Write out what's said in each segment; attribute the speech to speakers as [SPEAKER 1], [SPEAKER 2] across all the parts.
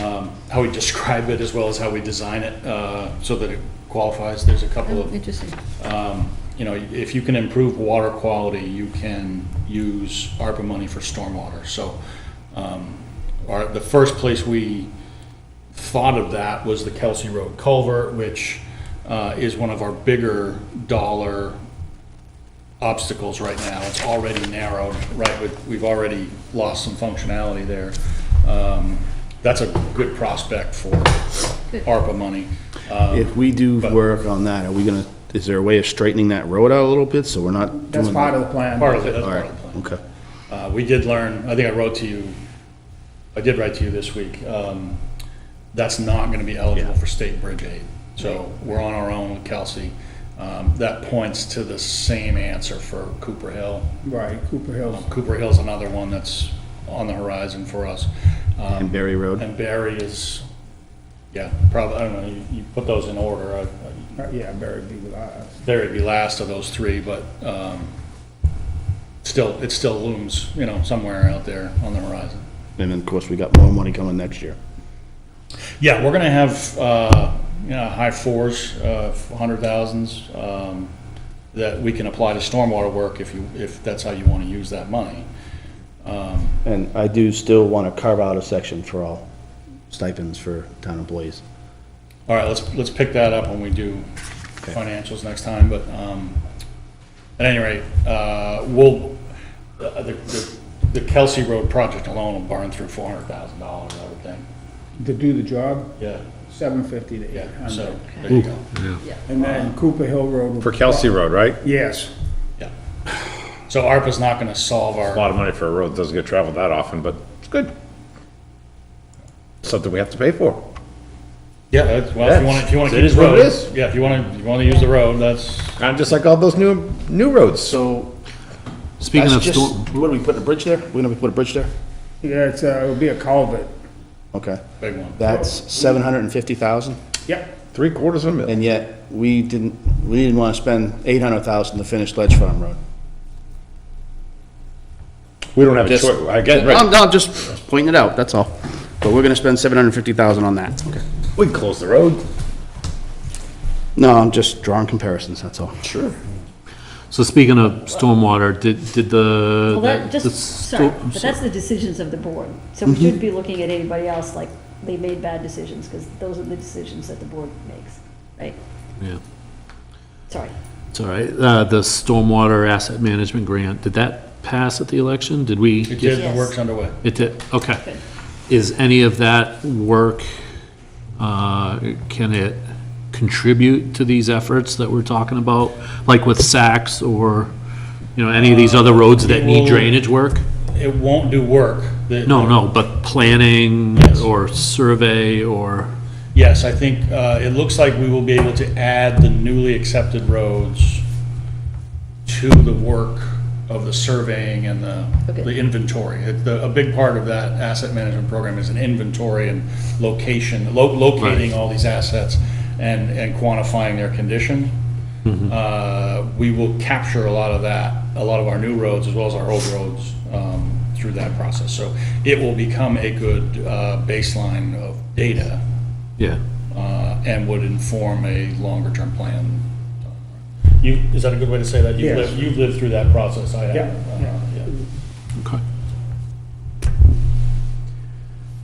[SPEAKER 1] um, how we describe it as well as how we design it uh, so that it qualifies. There's a couple
[SPEAKER 2] Oh,
[SPEAKER 1] of,
[SPEAKER 2] Interesting.
[SPEAKER 1] um, you know, if you can improve water quality, you can use ARPA money for stormwater. So um, our, the first place we thought of that was the Kelsey Road culvert, which uh, is one of our bigger dollar obstacles right now. It's already narrowed, right, we've, we've already lost some functionality there. Um, That's a good prospect for ARPA money. Um,
[SPEAKER 3] If we do work on that, are we gonna, is there a way of straightening that road out a little bit, so we're not doing?
[SPEAKER 4] That's part of the plan.
[SPEAKER 1] Part of it, that's
[SPEAKER 3] All
[SPEAKER 1] part
[SPEAKER 3] right,
[SPEAKER 1] of the plan.
[SPEAKER 3] okay.
[SPEAKER 1] Uh, We did learn, I think I wrote to you, I did write to you this week, um, that's not gonna be eligible for state bridge aid. So we're on our own with Kelsey. Um, That points to the same answer for Cooper Hill.
[SPEAKER 4] Right, Cooper Hills.
[SPEAKER 1] Cooper Hill's another one that's on the horizon for us. Um,
[SPEAKER 3] And Berry Road?
[SPEAKER 1] And Barry is, yeah, probably, I don't know, you, you put those in order. I- I-
[SPEAKER 4] Uh, Yeah, Barry B. Blige.
[SPEAKER 1] Barry'd be last of those three, but, um, still, it still looms, you know, somewhere out there on the horizon.
[SPEAKER 3] And then, of course, we got more money coming next year.
[SPEAKER 1] Yeah, we're gonna have, uh, you know, high fours, uh, hundred thousands, um, that we can apply to stormwater work if you, if that's how you wanna use that money.
[SPEAKER 3] And I do still wanna carve out a section for all stipends for town employees.
[SPEAKER 1] All right, let's, let's pick that up when we do
[SPEAKER 3] Okay.
[SPEAKER 1] financials next time, but, um, at any rate, uh, we'll, uh, the, the- the Kelsey Road project alone will burn through four hundred thousand dollars, I would think.
[SPEAKER 4] To do the job,
[SPEAKER 1] Yeah.
[SPEAKER 4] seven fifty to eight
[SPEAKER 1] Yeah, so,
[SPEAKER 4] hundred.
[SPEAKER 1] there you go.
[SPEAKER 4] And then Cooper Hill Road.
[SPEAKER 5] For Kelsey Road, right?
[SPEAKER 4] Yes,
[SPEAKER 1] Yeah. So ARPA's not gonna solve
[SPEAKER 5] A
[SPEAKER 1] our,
[SPEAKER 5] lot of money for a road that doesn't get traveled that often, but it's good. Something we have to pay for.
[SPEAKER 1] yeah, that's- well, if you wanna, if you wanna
[SPEAKER 5] It
[SPEAKER 1] keep
[SPEAKER 5] is
[SPEAKER 1] the
[SPEAKER 5] what it
[SPEAKER 1] road.
[SPEAKER 5] is.
[SPEAKER 1] Yeah, if you wanna, if you wanna use the road, that's,
[SPEAKER 5] Kind of just like all those new, new roads.
[SPEAKER 3] So, speaking of
[SPEAKER 5] That's
[SPEAKER 3] storm, what are we putting a bridge there? We're gonna put a bridge there?
[SPEAKER 4] yeah, it's, uh, it'll be a culvert.
[SPEAKER 3] Okay.
[SPEAKER 1] big one.
[SPEAKER 3] That's seven hundred and fifty thousand,
[SPEAKER 4] Yep.
[SPEAKER 5] Three quarters of a million.
[SPEAKER 3] and yet, we didn't, we didn't wanna spend eight hundred thousand to finish Ledge Farm Road.
[SPEAKER 5] We don't have a
[SPEAKER 3] Just-
[SPEAKER 5] choice. I get,
[SPEAKER 3] I'm,
[SPEAKER 5] right.
[SPEAKER 3] I'm just pointing it out, that's all. But we're gonna spend seven hundred and fifty thousand on that.
[SPEAKER 5] We can close the road.
[SPEAKER 3] No, I'm just drawing comparisons, that's all. Sure.
[SPEAKER 6] So speaking of stormwater, did, did
[SPEAKER 2] Well,
[SPEAKER 6] the?
[SPEAKER 2] that,
[SPEAKER 6] the
[SPEAKER 2] just, sorry,
[SPEAKER 6] sto-
[SPEAKER 2] but that's the decisions of the board. So we shouldn't be looking at anybody else like they made bad decisions, because those are the decisions that the board makes, right?
[SPEAKER 6] Yeah,
[SPEAKER 2] Sorry.
[SPEAKER 6] it's all right. Uh, the stormwater asset management grant, did that pass at the election? Did we?
[SPEAKER 1] It
[SPEAKER 6] get-
[SPEAKER 1] did, the
[SPEAKER 2] Yes.
[SPEAKER 1] work's underway.
[SPEAKER 6] It did, okay.
[SPEAKER 2] Good.
[SPEAKER 6] Is any of that work, uh, can it contribute to these efforts that we're talking about? Like with Saks or, you know, any of these other roads that
[SPEAKER 1] Well-
[SPEAKER 6] need drainage work?
[SPEAKER 1] It won't do work. The-
[SPEAKER 6] No, no, but planning
[SPEAKER 1] Yes.
[SPEAKER 6] or survey or?
[SPEAKER 1] Yes, I think, uh, it looks like we will be able to add the newly accepted roads to the work of the surveying and the,
[SPEAKER 2] Okay.
[SPEAKER 1] the inventory. It- the- A big part of that asset management program is an inventory and location, lo- locating all these assets and, and quantifying their condition. Uh, We will capture a lot of that, a lot of our new roads as well as our old roads um, through that process. So it will become a good uh, baseline of data
[SPEAKER 6] Yeah.
[SPEAKER 1] uh, and would inform a longer-term plan. You, is that a good way to say that? You've
[SPEAKER 4] Yes.
[SPEAKER 1] lived, you've lived through that process, I have. uh,
[SPEAKER 4] Yeah, yeah.
[SPEAKER 6] Okay.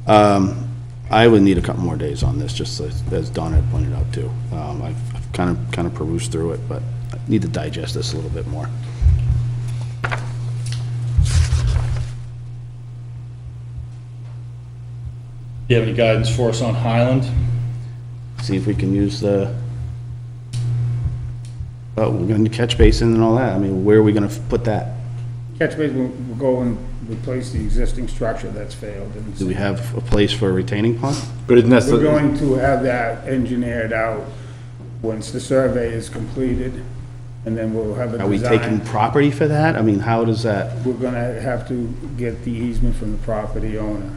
[SPEAKER 3] Um, I would need a couple more days on this, just as- as Don had pointed out too. Um, I've kind of, kind of perused through it, but I need to digest this a little bit more.
[SPEAKER 1] Do you have any guidance for us on Highland?
[SPEAKER 3] See if we can use the, oh, we're gonna do catch basin and all that. I mean, where are we gonna f- put that?
[SPEAKER 4] Catch basin, we'll we'll go and replace the existing structure that's failed. and-
[SPEAKER 3] Do we have a place for a retaining pond?
[SPEAKER 5] But isn't that,
[SPEAKER 4] We're
[SPEAKER 5] the-
[SPEAKER 4] going to have that engineered out once the survey is completed, and then we'll have a
[SPEAKER 3] Are we taking
[SPEAKER 4] design.
[SPEAKER 3] property for that? I mean, how does that,
[SPEAKER 4] We're gonna have to get the easement from the property owner.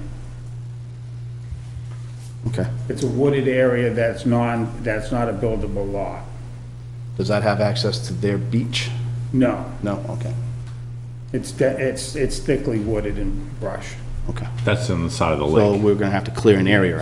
[SPEAKER 3] okay.
[SPEAKER 4] It's a wooded area that's non, that's not a buildable lot.
[SPEAKER 3] Does that have access to their beach?
[SPEAKER 4] No,
[SPEAKER 3] No, okay,
[SPEAKER 4] it's, de- it's, it's thickly wooded and brush.
[SPEAKER 3] okay.
[SPEAKER 5] that's in the side of the lake.
[SPEAKER 3] So we're gonna have to clear an area